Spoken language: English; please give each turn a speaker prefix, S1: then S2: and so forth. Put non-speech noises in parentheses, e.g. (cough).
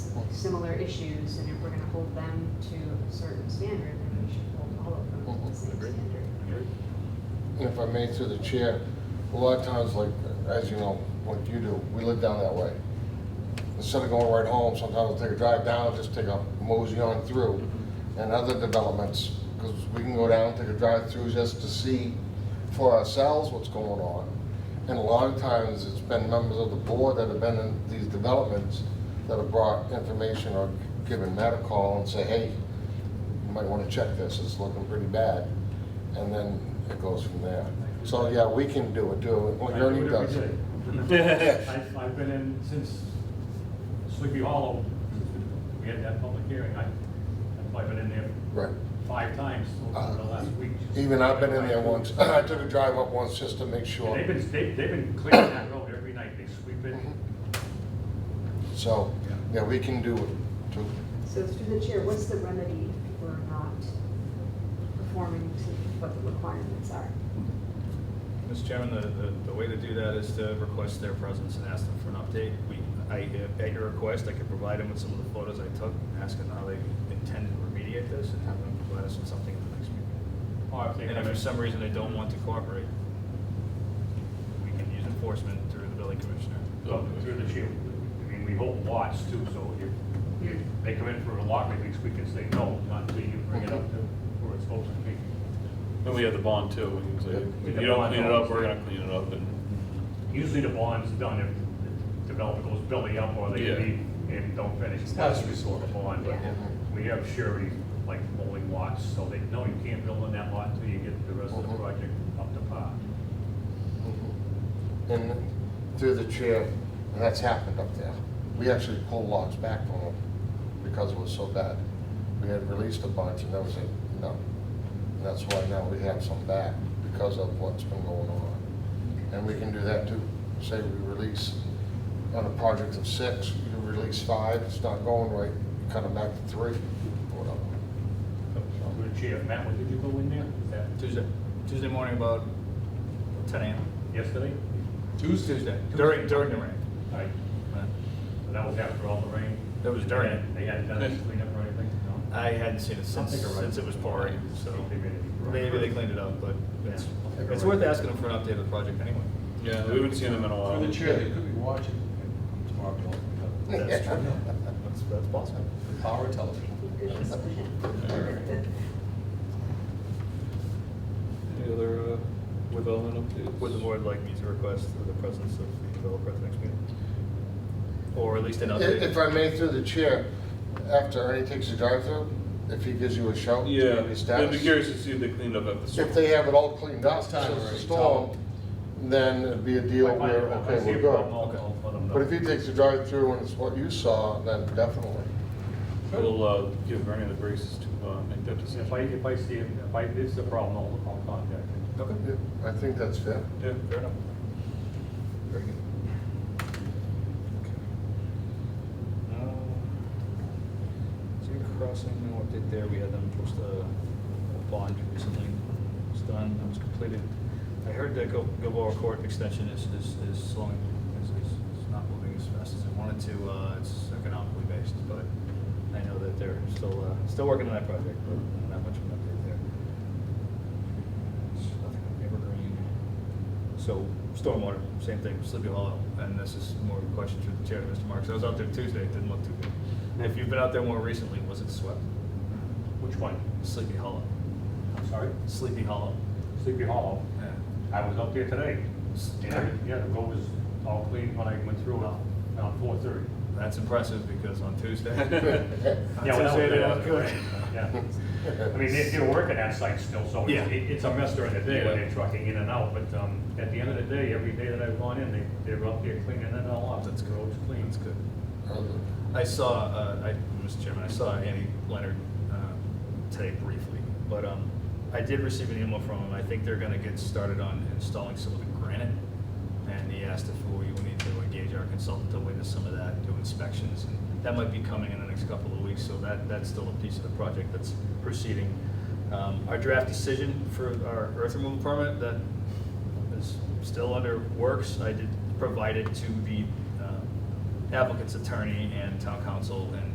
S1: similar issues, and if we're gonna hold them to a certain standard, then we should hold all of them to the same
S2: Agreed.
S1: standard.
S3: And if I may, through the chair, a lot of times, like, as you know, what you do, we live down that way. Instead of going right home, sometimes I'll take a drive down, just take a mosey on through, and other developments, because we can go down, take a drive through just to see for ourselves what's going on. And a lot of times, it's been members of the board that have been in these developments that have brought information or given Matt a call and say, hey, you might want to check this, it's looking pretty bad. And then it goes from there. So, yeah, we can do it, do it, what
S4: I do
S3: Ernie
S4: it
S3: does.
S4: every day. (laughs) I've, I've been in since Sleepy Hollow, we had that public hearing, I, I've probably been in there
S3: Right.
S4: five times over the last week.
S3: Uh, Even I've been in there once, (clears throat) (laughs) I took a drive up once just to make
S4: And they've
S3: sure.
S4: been, they- they've been clearing that road every night, they sweep it.
S3: Mm-hmm. So, yeah, we can do it, too.
S1: So through the chair, what's the remedy if people are not performing to what the requirements are?
S5: Mr. Chairman, the, the, the way to do that is to request their presence and ask them for an update. We, I, uh, at your request, I could provide them with some of the photos I took, and ask them how they intend to remediate this, and have them provide us with something at the next meeting.
S4: Or if they
S5: And if
S4: come in-
S5: for some reason they don't want to cooperate, we can use enforcement through the building commissioner.
S4: Well, Through the chair, I mean, we hold lots too, so if, if they come in for a lot release, we can say no, not until you bring it up to where it's supposed to be.
S6: And we have the bond too, we can say, if you don't clean it up, we're gonna clean it up, and
S4: Usually the bond's done if the developer goes belly up or they
S6: Yeah.
S4: leave and don't finish.
S6: It's last resort.
S4: The bond, but
S1: Yeah.
S4: we have surety, like bowling lots, so they, no, you can't build on that lot until you get the rest of the
S3: Mhm.
S4: project up to par.
S3: And through the chair, and that's happened up there. We actually pulled logs back from them because it was so bad. We had released a bunch and that was it, no. And that's why now we have some back because of what's been going on. And we can do that too. Say we release on a project of six, you release five, it's not going right, you cut them back to three, or whatever.
S4: Through the chair, Matt, when did you go in there? Was that
S5: Tuesday, Tuesday morning about ten AM.
S4: yesterday?
S6: Tuesday,
S5: Tuesday, during, during the rain.
S4: All right, so that was after all the rain?
S5: That was during it.
S4: They hadn't done any cleanup or anything? No?
S5: I hadn't seen it since,
S4: Something around-
S5: since it was pouring, so
S4: They made it.
S5: maybe they cleaned it up, but it's,
S4: Yeah.
S5: it's worth asking them for an update of the project anyway.
S6: yeah, we haven't seen them in a while.
S7: Through the chair, they could be watching tomorrow,
S5: That's true. That's, that's possible.
S7: the power of television.
S1: (laughs)
S6: Any other uh, development updates?
S5: Would the board like me to request the presence of the developer at the next meeting? Or at least an update?
S3: If I may, through the chair, after Ernie takes the drive-through, if he gives you a shout,
S6: Yeah,
S3: give you
S6: I'd be
S3: status.
S6: curious to see if they cleaned up after the storm.
S3: If they have it all cleaned up
S7: It's time
S3: since the
S7: already,
S3: storm, then it'd be a deal
S4: If I find
S3: where,
S4: it, if I
S3: okay,
S4: see
S3: we're
S4: a problem,
S3: good.
S4: I'll- I'll let them know.
S3: But if he takes the drive-through and it's what you saw, then definitely.
S6: We'll uh, give Ernie the braces to uh, make that decision.
S4: If I, if I see, it, if I, this is a problem, I'll, I'll contact him.
S5: Okay,
S3: Yeah, I think that's fair.
S6: Yeah.
S5: fair enough. Very good. Um, Deer Crossing, no update there. We had them post a a bond recently. It's done, it was completed. I heard that Gil- Gilboa Court extension is, is, is slowing, is, is is not moving as fast as it wanted to. Uh, It's economically based, but I know that they're still, uh, still working on that project, but not much of an update there. It's Nothing evergreen. So stormwater, same thing, Sleepy Hollow, and this is more of a question through the chair to Mr. Marks. I was out there Tuesday, it didn't look too good. And If you've been out there more recently, was it swept?
S4: Which one?
S5: Sleepy Hollow,
S4: I'm sorry?
S5: Sleepy Hollow.
S4: Sleepy Hollow. I was up there today.
S5: S-
S4: And every- Yeah, the road was all clean when I went through it, around four thirty.
S5: That's impressive because on Tuesday. (laughs)
S6: (laughs)
S5: on
S4: Yeah, when I was
S5: Tuesday, they
S4: there,
S5: looked good.
S4: Yeah. (laughs) I mean, they, they're working that site still, so
S5: Yeah.
S4: it's, it- it's a mess during the day when
S6: Yeah.
S4: they're trucking in and out, but, um, at the end of the day, every day that I've gone in, they, they're up there cleaning it all up.
S5: That's
S4: The road's clean.
S5: That's good. Um, I saw, uh, I, Mr. Chairman, I saw Andy Leonard uh, today briefly, but um, I did receive an email from him. I think they're going to get started on installing some of the granite. And he asked if we would need to engage our consultant to witness some of that, do inspections. and That might be coming in the next couple of weeks, so that, that's still a piece of the project that's proceeding. Um, Our draft decision for our earth removal permit that is still under works. I did provide it to the uh, applicant's attorney and town council, and